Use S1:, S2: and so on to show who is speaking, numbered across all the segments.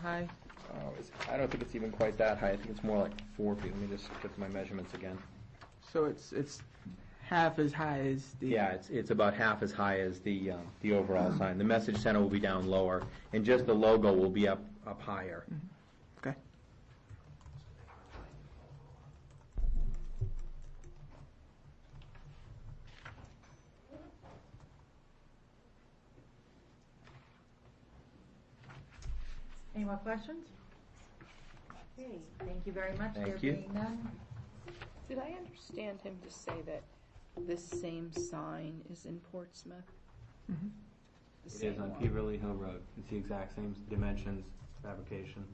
S1: high?
S2: Oh, it's, I don't think it's even quite that high. I think it's more like four feet. Let me just get my measurements again.
S1: So it's, it's half as high as the.
S2: Yeah, it's, it's about half as high as the, um, the overall sign. The message center will be down lower, and just the logo will be up, up higher.
S1: Okay.
S3: Any more questions? Okay, thank you very much.
S2: Thank
S3: There
S2: you.
S3: being none,
S4: Did I understand him to say that this same sign is in Portsmouth?
S1: Mhm.
S4: The same one?
S2: Peverly Hill Road. It's the exact same dimensions, fabrication.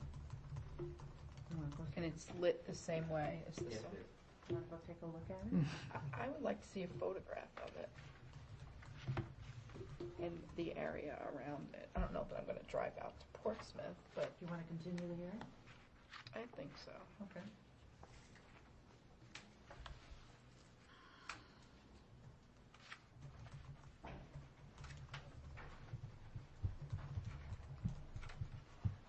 S4: And it's lit the same way as this one?
S3: Wanna go take a look at it?
S4: I- I would like to see a photograph of it. And the area around it. I don't know that I'm gonna drive out to Portsmouth, but
S3: Do you want to continue the hearing?
S4: I think so.
S3: Okay.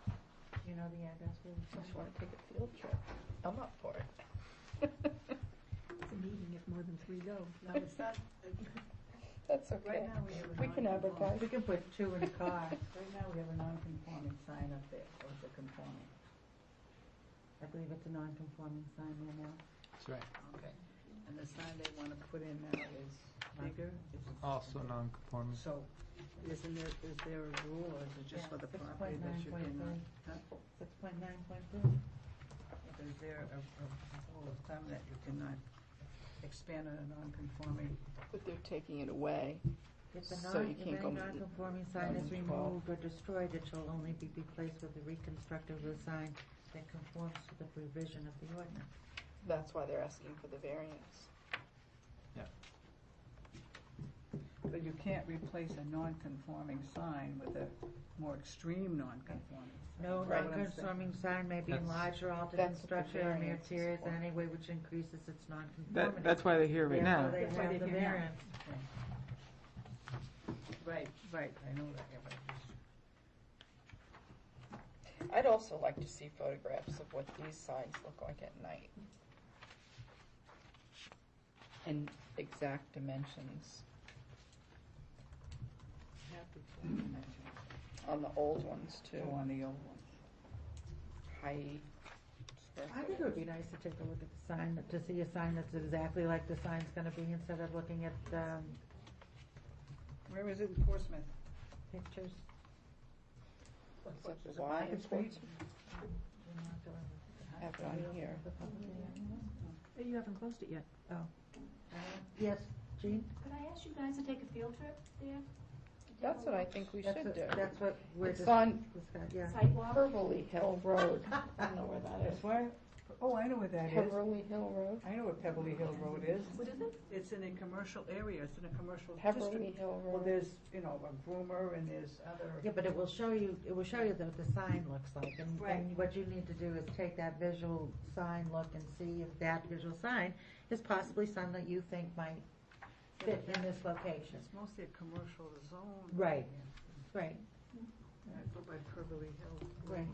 S3: Do you know the address where
S4: I
S3: it's
S4: just wanna take a field trip. I'm up for it.
S3: It's a meeting if more than three go. No, it's not,
S4: That's
S3: right
S4: okay.
S3: now we have a.
S4: We can
S3: non-conform-
S4: advertise.
S3: We can put two in a car. Right now, we have a non-conforming sign up there, or it's a conforming. I believe it's a non-conforming sign right now.
S5: That's right.
S3: Okay, and the sign they want to put in now is bigger?
S5: Also non-conforming.
S3: So, isn't there, is there a rule, or is it just for the property that you can? Six point nine point three. Is there a, a rule of thumb that you cannot expand on a non-conforming?
S4: But they're taking it away.
S6: If the
S4: So
S6: non,
S4: you
S6: if
S4: can't
S6: any
S4: go-
S6: non-conforming sign is removed or destroyed, it shall only be replaced with a reconstructed of the sign that conforms to the provision of the ordinance.
S4: That's why they're asking for the variance.
S7: But you can't replace a non-conforming sign with a more extreme non-conforming.
S6: No
S4: Right.
S6: non-conforming sign may be
S5: That's-
S6: enlarged or altered in
S4: That's what the
S6: structure or mere
S4: variance is
S6: interiors
S4: for.
S6: in any way which increases its non-conformity.
S1: That, that's why they're here right now.
S6: Therefore, they
S7: That's why
S6: have the
S7: they're here now.
S6: variance.
S7: Right, right, I know that, yeah, but it's-
S4: I'd also like to see photographs of what these signs look like at night. And exact dimensions on the old ones too,
S7: go on the old one.
S4: height. square
S6: I think it would be nice to take a look at the sign, to see a sign that's exactly like the sign's gonna be instead of looking at, um,
S7: Where is it in Portsmouth?
S6: pictures.
S4: footage. Is it Y in Portsmouth? I have it on here.
S6: You haven't closed it yet. Oh. Yes, Jean?
S8: Could I ask you guys to take a field trip there?
S4: That's what I think we
S6: That's
S4: should
S6: what-
S4: do.
S6: That's what we're
S4: It's
S6: just.
S4: on
S6: discuss- Yeah.
S8: Sidewalk?
S4: Peverly Hill Road. I don't know where that is.
S7: Where? Oh, I know where that is.
S4: Peverly Hill Road?
S7: I know where Pebbly Hill Road is.
S8: What is it?
S7: It's in a commercial area, it's in a commercial
S4: Peverly
S7: district.
S4: Hill
S7: Well,
S4: Road.
S7: there's, you know, a groomer and there's other,
S6: Yeah, but it will show you, it will show you what the sign looks like, and,
S7: Right.
S6: and what you need to do is take that visual sign look and see if that visual sign is possibly some that you think might fit in this location.
S7: it's mostly a commercial zone.
S6: Right. Right,
S7: Yeah, I go by Pebbly Hill.
S6: right.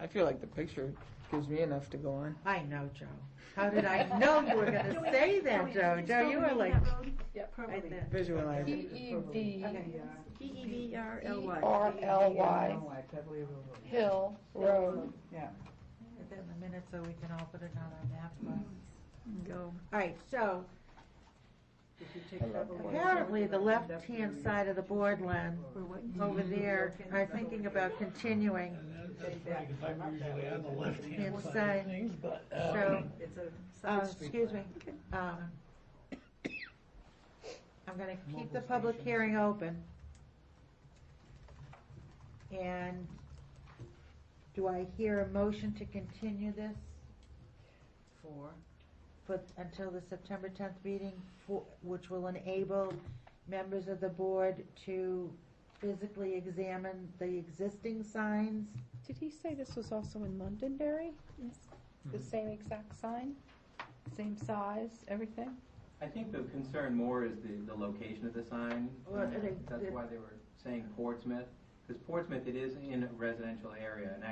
S1: I feel like the picture gives me enough to go on.
S6: I know, Joe. How did I know you were
S8: Can
S6: gonna
S8: we-
S6: say
S8: can
S6: that,
S8: we
S6: Joe?
S8: just
S6: Joe,
S8: go
S6: you
S8: down
S6: are like
S8: that road?
S6: right there.
S1: Visualize it.
S4: P-E-D.
S6: Okay.
S7: P
S1: E V R
S4: E-R-L-Y
S7: Pebbly Hill Road.
S4: Hill Road.
S7: Yeah.
S6: Put that in a minute so we can all put it on our map. uh, for us.
S1: Go.
S6: All right, so
S7: If you take Pebbly Hill Road,
S6: apparently the
S7: you'll end up
S6: left-hand
S7: near-
S6: side of the board, Len, over there, are thinking about continuing
S9: I'm usually on the left-hand
S6: hand
S9: side of
S6: side.
S9: things, but, uh,
S6: So,
S7: It's a
S6: uh,
S7: side street.
S6: excuse me, um, I'm gonna keep the public hearing open. And do I hear a motion to continue this
S7: For,
S6: for, until the September tenth meeting, for, which will enable members of the board to physically examine the existing signs?
S4: Did he say this was also in Londonderry? The same exact sign, same size, everything?
S2: I think the concern more is the, the location of the sign. Uh,
S6: Well, it-
S2: That's why they were saying Portsmouth, because Portsmouth, it is in a residential area, and